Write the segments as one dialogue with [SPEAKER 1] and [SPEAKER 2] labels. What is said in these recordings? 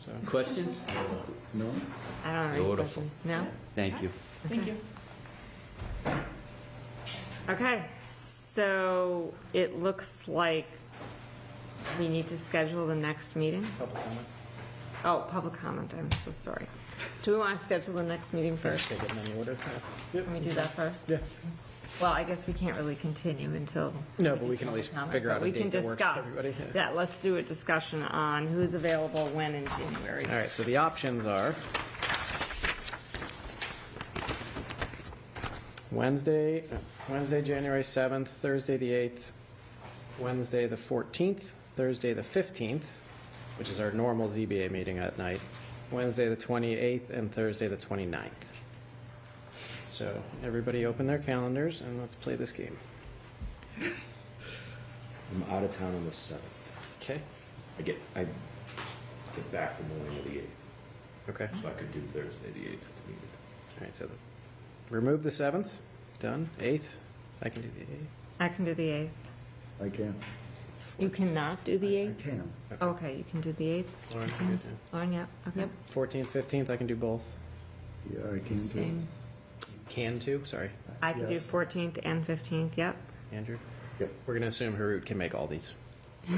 [SPEAKER 1] so.
[SPEAKER 2] Questions?
[SPEAKER 1] No?
[SPEAKER 3] I don't have any
[SPEAKER 2] Beautiful.
[SPEAKER 3] questions. No?
[SPEAKER 2] Thank you.
[SPEAKER 4] Thank you.
[SPEAKER 3] Okay, so it looks like we need to schedule the next meeting.
[SPEAKER 1] Public comment?
[SPEAKER 3] Oh, public comment, I'm so sorry. Do we want to schedule the next meeting first?
[SPEAKER 1] Take it in any order?
[SPEAKER 3] Can we do that first?
[SPEAKER 1] Yeah.
[SPEAKER 3] Well, I guess we can't really continue until.
[SPEAKER 1] No, but we can at least
[SPEAKER 3] comment,
[SPEAKER 1] figure out
[SPEAKER 3] but
[SPEAKER 1] a date that works for everybody.
[SPEAKER 3] We can discuss.
[SPEAKER 1] yeah.
[SPEAKER 3] Yeah, let's do a discussion on who's available when in January.
[SPEAKER 1] All right, so the options are Wednesday, Wednesday, January 7th, Thursday, the 8th, Wednesday, the 14th, Thursday, the 15th, which is our normal ZBA meeting at night, Wednesday, the 28th, and Thursday, the 29th. So everybody open their calendars and let's play this game.
[SPEAKER 5] I'm out of town on the seventh.
[SPEAKER 1] Okay.
[SPEAKER 5] I get, I get back the morning of the eighth,
[SPEAKER 1] Okay.
[SPEAKER 5] so I could do Thursday the eighth if needed.
[SPEAKER 1] All right, so the- remove the 7th, done. 8th, I can do the 8th.
[SPEAKER 3] I can do the 8th.
[SPEAKER 6] I can.
[SPEAKER 3] You cannot do the
[SPEAKER 6] I
[SPEAKER 3] 8th?
[SPEAKER 6] can.
[SPEAKER 3] Okay, you can do the 8th.
[SPEAKER 1] Lauren, you good, yeah?
[SPEAKER 3] Lauren, yep, okay.
[SPEAKER 1] 14th, 15th, I can do both.
[SPEAKER 6] Yeah, I can too.
[SPEAKER 3] Same.
[SPEAKER 1] Can too, sorry,
[SPEAKER 3] I could do
[SPEAKER 6] Yes.
[SPEAKER 3] 14th and 15th, yep.
[SPEAKER 1] Andrew.
[SPEAKER 5] Yep.
[SPEAKER 1] We're going to assume Harut can make all these.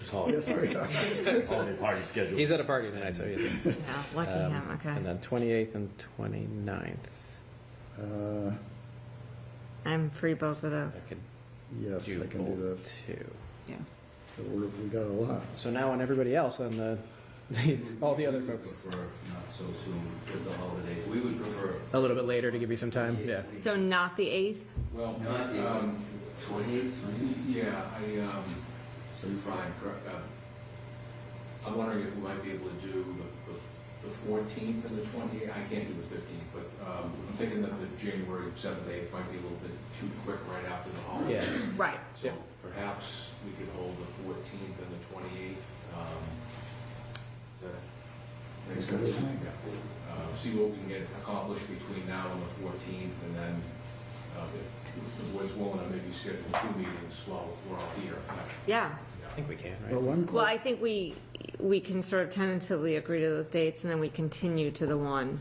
[SPEAKER 5] It's holiday,
[SPEAKER 6] Yes, we are.
[SPEAKER 5] holiday party schedule.
[SPEAKER 1] He's at a party tonight, so he's.
[SPEAKER 3] Yeah, Lucky him,
[SPEAKER 1] Um, And
[SPEAKER 3] okay.
[SPEAKER 1] then 28th and 29th.
[SPEAKER 6] Uh,
[SPEAKER 3] I'm free both of
[SPEAKER 1] I
[SPEAKER 3] those.
[SPEAKER 1] could
[SPEAKER 6] Yes,
[SPEAKER 1] do
[SPEAKER 6] I can do that.
[SPEAKER 1] both too.
[SPEAKER 4] Yeah.
[SPEAKER 6] So we're- We got a lot.
[SPEAKER 1] So now on everybody else, on the, all the other folks,
[SPEAKER 7] Prefer not so soon with the holidays. We would prefer
[SPEAKER 1] a little bit later to give you some time, yeah.
[SPEAKER 3] So not the 8th?
[SPEAKER 8] Well,
[SPEAKER 7] not the
[SPEAKER 8] um,
[SPEAKER 7] twentieth,
[SPEAKER 8] yeah, I, um, Brian, correct, uh, I'm wondering if we might be able to do the- the- the fourteenth and the twenty, I can't do the fifteenth, but, um, I'm thinking that the January seventh, eighth might be a little bit too quick right after the holiday.
[SPEAKER 1] Yeah.
[SPEAKER 3] Right.
[SPEAKER 8] So perhaps we could hold the fourteenth and the twenty-eighth, um, does that make sense? Yeah. Uh, see what we can get accomplished between now and the fourteenth, and then, uh, if the board's willing, I maybe schedule two meetings while we're all here.
[SPEAKER 3] Yeah.
[SPEAKER 1] I think we can,
[SPEAKER 6] But
[SPEAKER 1] right?
[SPEAKER 6] one
[SPEAKER 3] Well, I
[SPEAKER 6] question,
[SPEAKER 3] think we, we can sort of tentatively agree to those dates, and then we continue to the one.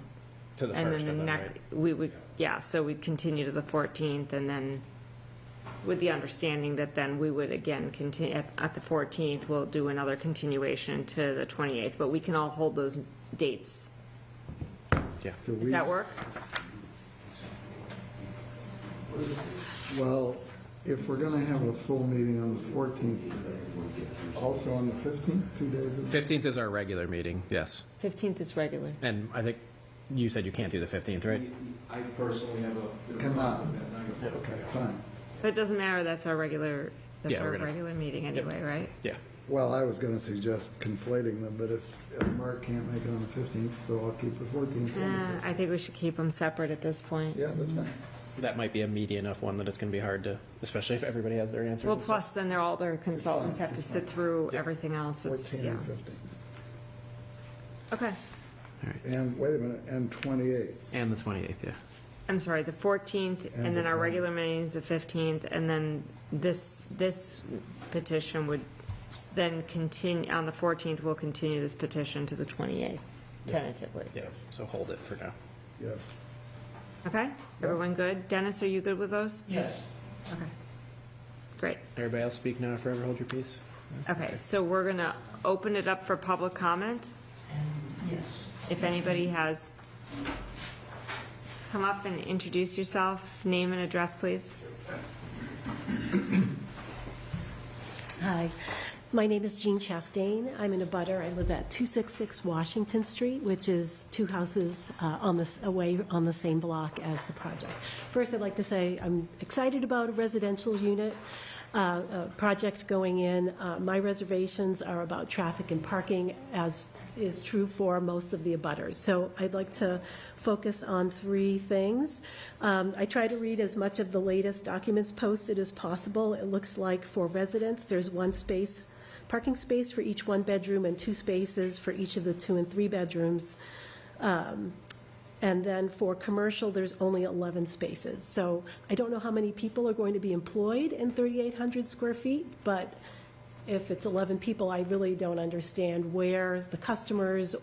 [SPEAKER 1] To the
[SPEAKER 3] And
[SPEAKER 1] first
[SPEAKER 3] then the
[SPEAKER 1] of them, right?
[SPEAKER 3] next, we would, yeah, so we'd continue to the 14th, and then with the understanding that then we would again continue, at, at the 14th, we'll do another continuation to the 28th, but we can all hold those dates.
[SPEAKER 1] Yeah.
[SPEAKER 6] do
[SPEAKER 3] Does
[SPEAKER 6] we-
[SPEAKER 3] that work?
[SPEAKER 6] Well, if we're going to have a full meeting on the 14th, also on the 15th, two days of.
[SPEAKER 1] 15th is our regular meeting, yes.
[SPEAKER 3] 15th is regular.
[SPEAKER 1] And I think you said you can't do the 15th, right?
[SPEAKER 8] I personally have a bit of a
[SPEAKER 6] Come on.
[SPEAKER 8] problem that night.
[SPEAKER 6] Okay, fine.
[SPEAKER 3] But it doesn't matter, that's our regular, that's
[SPEAKER 1] Yeah,
[SPEAKER 3] our
[SPEAKER 1] we're gonna-
[SPEAKER 3] regular meeting anyway, right?
[SPEAKER 1] Yeah.
[SPEAKER 6] Well, I was going to suggest conflating them, but if if Mark can't make it on the 15th, so I'll keep the 14th. on the
[SPEAKER 3] Uh, I think we should keep them separate at this
[SPEAKER 6] 15th.
[SPEAKER 3] point.
[SPEAKER 6] Yeah, that's fine.
[SPEAKER 1] That might be a meaty enough one that it's going to be hard to, especially if everybody has their answers.
[SPEAKER 3] Well,
[SPEAKER 1] and stuff.
[SPEAKER 3] plus then they're all, their consultants have to sit through everything else, it's,
[SPEAKER 6] 14
[SPEAKER 3] yeah.
[SPEAKER 6] and 15.
[SPEAKER 3] Okay,
[SPEAKER 6] And wait a minute, and 28.
[SPEAKER 1] And the 28th, yeah.
[SPEAKER 3] I'm sorry, the 14th, and
[SPEAKER 6] And
[SPEAKER 3] then
[SPEAKER 6] the
[SPEAKER 3] our
[SPEAKER 6] 20th.
[SPEAKER 3] regular meeting's the 15th, and then this, this petition would then continue, on the 14th, we'll continue this petition to the 28th, tentatively.
[SPEAKER 1] Yeah, so hold it for now.
[SPEAKER 6] Yes.
[SPEAKER 3] Okay, everyone good? Dennis, are you good with those?
[SPEAKER 7] Yes.
[SPEAKER 3] Okay. Great.
[SPEAKER 1] Everybody else speak now, or forever hold your peace.
[SPEAKER 3] Okay, so we're going to open it up for public comment.
[SPEAKER 7] Yes.
[SPEAKER 3] If anybody has, come up and introduce yourself, name and address, please.
[SPEAKER 9] Hi, my name is Jean Chastain. I'm in a butter. I live at 266 Washington Street, which is two houses uh, on this, away on the same block as the project. First, I'd like to say I'm excited about a residential unit uh, uh, project going in. Uh, My reservations are about traffic and parking, as is true for most of the abutters. So I'd like to focus on three things. Um, I try to read as much of the latest documents posted as possible. It looks like for residents, there's one space, parking space for each one-bedroom and two spaces for each of the two and three-bedrooms. And then for commercial, there's only 11 spaces. So I don't know how many people are going to be employed in 3,800 square feet, but if it's 11 people, I really don't understand where the customers